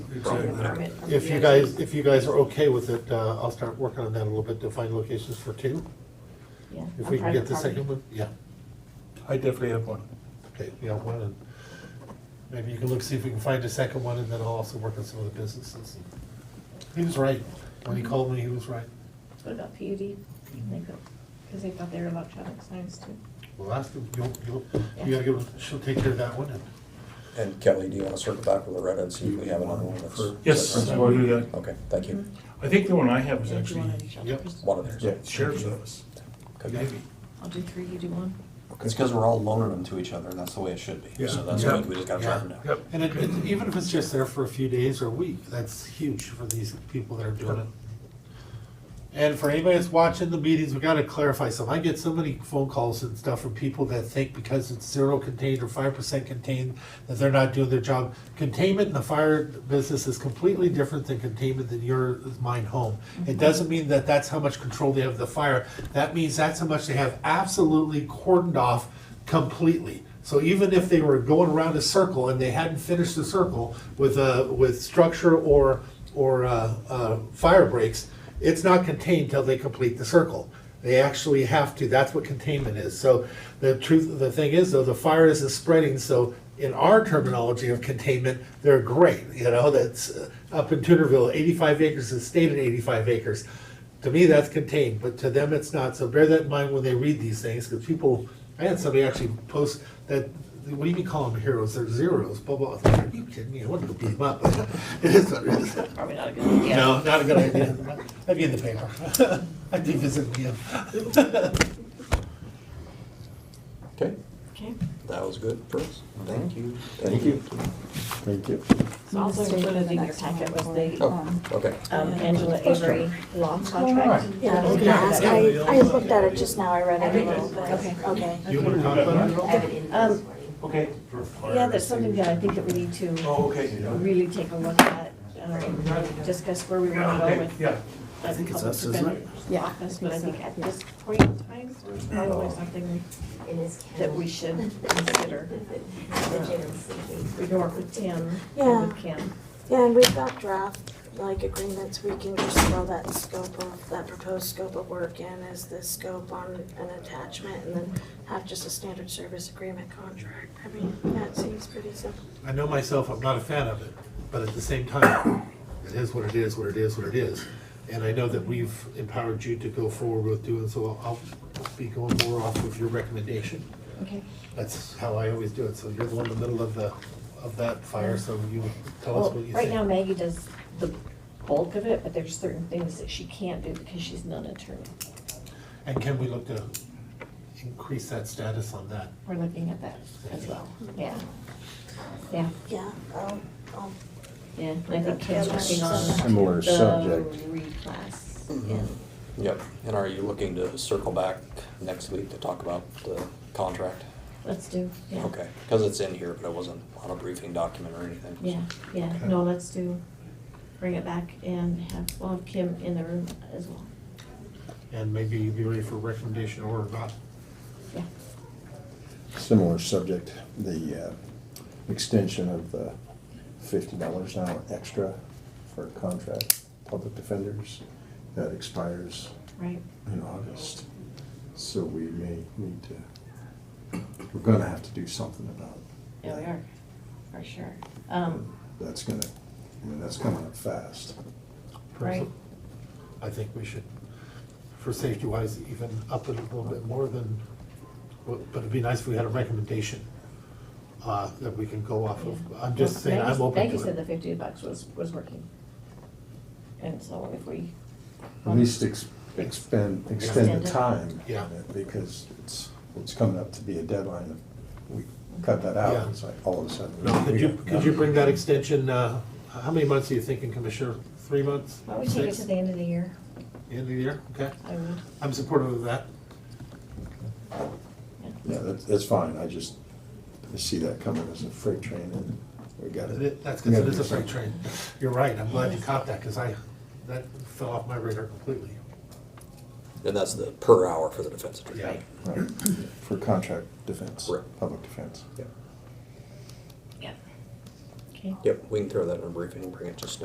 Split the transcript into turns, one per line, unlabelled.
problem.
Permit from
If you
the-
guys, if you guys are okay with it, uh, I'll start working on that a little bit to find locations for two.
Yeah,
If
a
we can
private
get the
party.
second one, yeah,
I definitely have one.
okay, we have one, and maybe you can look, see if we can find a second one, and then I'll also work on some of the businesses. He was right, when he called me, he was right.
What about PUD? Because they thought they were electronic signs too.
Well, that's, the- you'll, you'll, you gotta give, she'll take care of that one, and
And Kelly, do you want to circle back with Loretta and see if we have another one that's?
Yes, I will do that.
Okay, thank you.
I think the one I have is
Yeah, do
actually
one on each other.
Yep.
One of theirs.
sheriff's office,
Could be.
maybe.
I'll do three, you do one.
It's because we're all loaning them to each other, and that's the way it should be. So
Yeah.
that's
Yeah.
why we just gotta track them down.
Yep.
And it, it- even if it's just there for a few days or a week, that's huge for these people that are doing it. And for anybody that's watching the meetings, we gotta clarify something. I get so many phone calls and stuff from people that think because it's zero contained or five percent contained, that they're not doing their job. Containment in the fire business is completely different than containment in your, mine home. It doesn't mean that that's how much control they have of the fire. That means that's how much they have absolutely cordoned off completely. So even if they were going around a circle and they hadn't finished the circle with a, with structure or, or, uh, uh, fire breaks, it's not contained till they complete the circle. They actually have to, that's what containment is. So the truth, the thing is though, the fire isn't spreading, so in our terminology of containment, they're great, you know, that's uh, up in Tudorville, eighty-five acres is stated eighty-five acres. To me, that's contained, but to them, it's not, so bear that in mind when they read these things, because people, I had somebody actually post that, what do you mean call them heroes, they're zeros, blah, blah, I was like, are you kidding me, I wouldn't go beat them up, it is what it is.
Probably not a good idea.
No, not a good idea. I'd be in the paper. I'd be visiting you.
Okay,
Okay,
that was good for us. Thank you.
Thank you. Thank you.
so also
Mistake for
included
the
in your
next one
packet was
before-
the
Oh, okay.
um, Angela Avery law contract.
Yeah, I was
Okay.
gonna ask, I, I looked at it just now, I read it a little
Everything,
bit.
okay.
Okay.
You want to talk about it at all?
Um,
Okay.
Yeah, that's something that I think that we need to
Oh, okay.
really take a look at, um, discuss where we
Yeah,
want to go
okay,
with.
yeah.
I think it's us, isn't it?
Yeah.
Office, but I think at this point in time, it's probably something
It is
that
Kim.
we should consider.
The gym's sleeping.
We can work with Tim and
Yeah.
with Kim.
Yeah, and we've got draft, like, agreements, we can just throw that scope of, that proposed scope of work in as the scope on an attachment, and then have just a standard service agreement contract. I mean, that seems pretty simple.
I know myself, I'm not a fan of it, but at the same time, it is what it is, what it is, what it is. And I know that we've empowered you to go forward with doing, so I'll be going more off of your recommendation.
Okay.
That's how I always do it, so you're the one in the middle of the, of that fire, so you tell us
Well,
what you
right now
think.
Maggie does the bulk of it, but there's certain things that she can't do because she's not an attorney.
And can we look to increase that status on that?
We're looking at that as well. Yeah. Yeah,
Yeah, I'll, I'll
yeah. And I think Kim's working on
Similar
the
subject.
reclass. Yeah.
Yep, and are you looking to circle back next week to talk about the contract?
Let's do, yeah.
Okay, because it's in here, but it wasn't on a briefing document or anything.
Yeah, yeah. No, let's do, bring it back and have, we'll have Kim in the room as well.
And maybe you'd be ready for recommendation or not?
Yeah.
Similar subject, the uh, extension of the fifty dollars an hour extra for contract public defenders. That expires
Right.
in August. So we may need to, we're gonna have to do something about it.
Yeah, we are, for sure. Um,
That's gonna, I mean, that's coming up fast.
right,
I think we should, for safety wise, even up it a little bit more than, but it'd be nice if we had a recommendation uh, that we can go off of. I'm just
Well,
saying, I'm
Maggie-
open
Maggie
to
said the
it.
fifty bucks was, was working. And so if we.
At least ex- expend, extend
Extend it.
the time.
Yeah.
on it, Because it's, it's coming up to be a deadline. If We cut that out,
Yeah.
it's like all of a sudden.
No, Could
we
you,
got
could you
nothing.
bring that extension, uh, how many months are you thinking, Commissioner? Three months?
Why don't we take it
Six?
to the end of the year?
End of the year, okay.
I would,
I'm supportive of that.
yeah.
Yeah, that's, that's fine. I just, I see that coming as a freight train and we got it.
That's because it is a freight train. You're right, I'm glad you caught that because I, that fell off my radar completely.
And that's the per hour for the defense attorney.
Yeah.
Right. For contract defense,
Right.
public defense.
Yeah.
Yeah. Okay. Okay.
Yep, we can throw that in a briefing, bring it to staff.